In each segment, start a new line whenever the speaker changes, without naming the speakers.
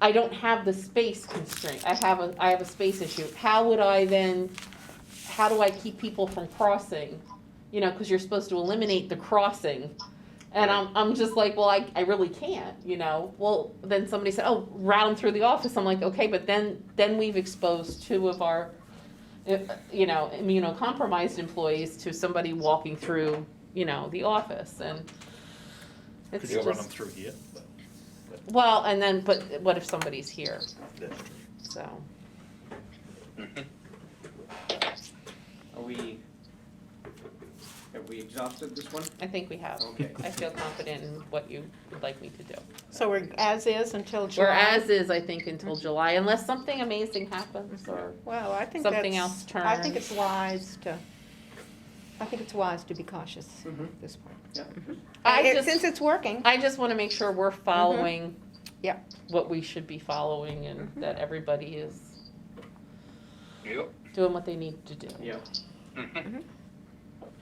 I don't have the space constraint, I have a, I have a space issue, how would I then, how do I keep people from crossing? You know, cause you're supposed to eliminate the crossing, and I'm, I'm just like, well, I, I really can't, you know, well, then somebody said, oh, route them through the office, I'm like, okay, but then, then we've exposed two of our, uh, you know, immunocompromised employees to somebody walking through, you know, the office, and it's
Could you run them
just,
through here?
well, and then, but what if somebody's here? So,
Are we, have we exhausted this one?
I think we have.
Okay.
I feel confident in what you would like me to do.
So we're as is until July?
Whereas is, I think, until July, unless something amazing happens or,
Well, I think that's.
Something else
I think
turns.
it's wise to, I think it's wise to be cautious at this point.
Yeah.
I
Uh, it-
just-
Since it's Mm-hmm. working,
I just wanna make sure we're following.
Yeah.
What we should be following and
Mm-hmm.
that everybody is
Yep.
doing what they need to do.
Yeah.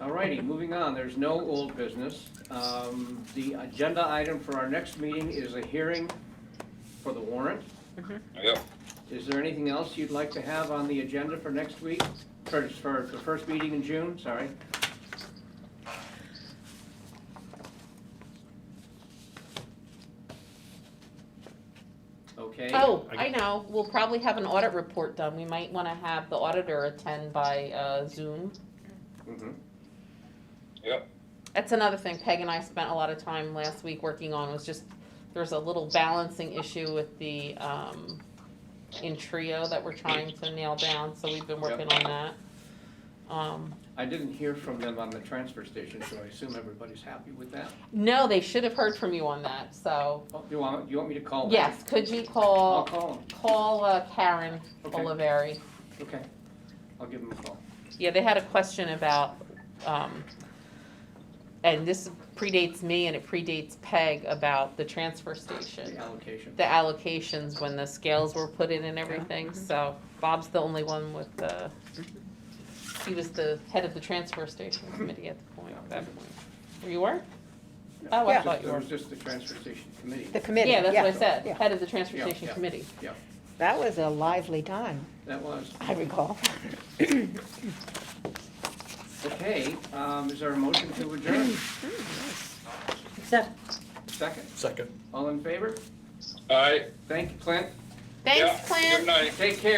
Alrighty, moving on, there's no old business. Um, the agenda item for our next meeting is a hearing for the warrant.
Yep.
Is there anything else you'd like to have on the agenda for next week? For, for the first meeting in June, sorry. Okay.
Oh,
I-
I know, we'll probably have an audit report done, we might wanna have the auditor attend by, uh, Zoom.
Mhm.
That's another thing Peg and I spent a lot of time last week working on was just, there's a little balancing issue with the, um, in trio that we're trying to nail down, so we've been working on that. Um,
I didn't hear from them on the transfer station, so I assume everybody's happy with that.
no, they should have heard from you on that, so,
Oh, You want, you want me to call them?
yes, could you
I'll
call,
call them,
call uh, Karen
Okay.
Oliveri?
okay. I'll give them a call.
Yeah, they had a question about, um, and this predates me and it predates Peg about the transfer station.
The allocation.
the allocations when the scales were put in and everything,
mm-hmm.
so Bob's the only one with the, he was the head of the transfer station
Mm-hmm.
committee at the point, at that point. Were You were? Oh, I
Just-
thought you
It
were.
was just the transfer station committee.
the committee,
Yeah,
yeah.
that's what I said,
yeah.
head of the transfer
Yeah,
station
yeah.
committee.
That was a lively time,
That was,
I recall.
okay, um, is there a motion to adjourn?
Hmm, So,
Second,
Second.
all in favor?
All right.
Thank you, Clint.
Yeah.
Thanks, Clem.
Good night.
Take care.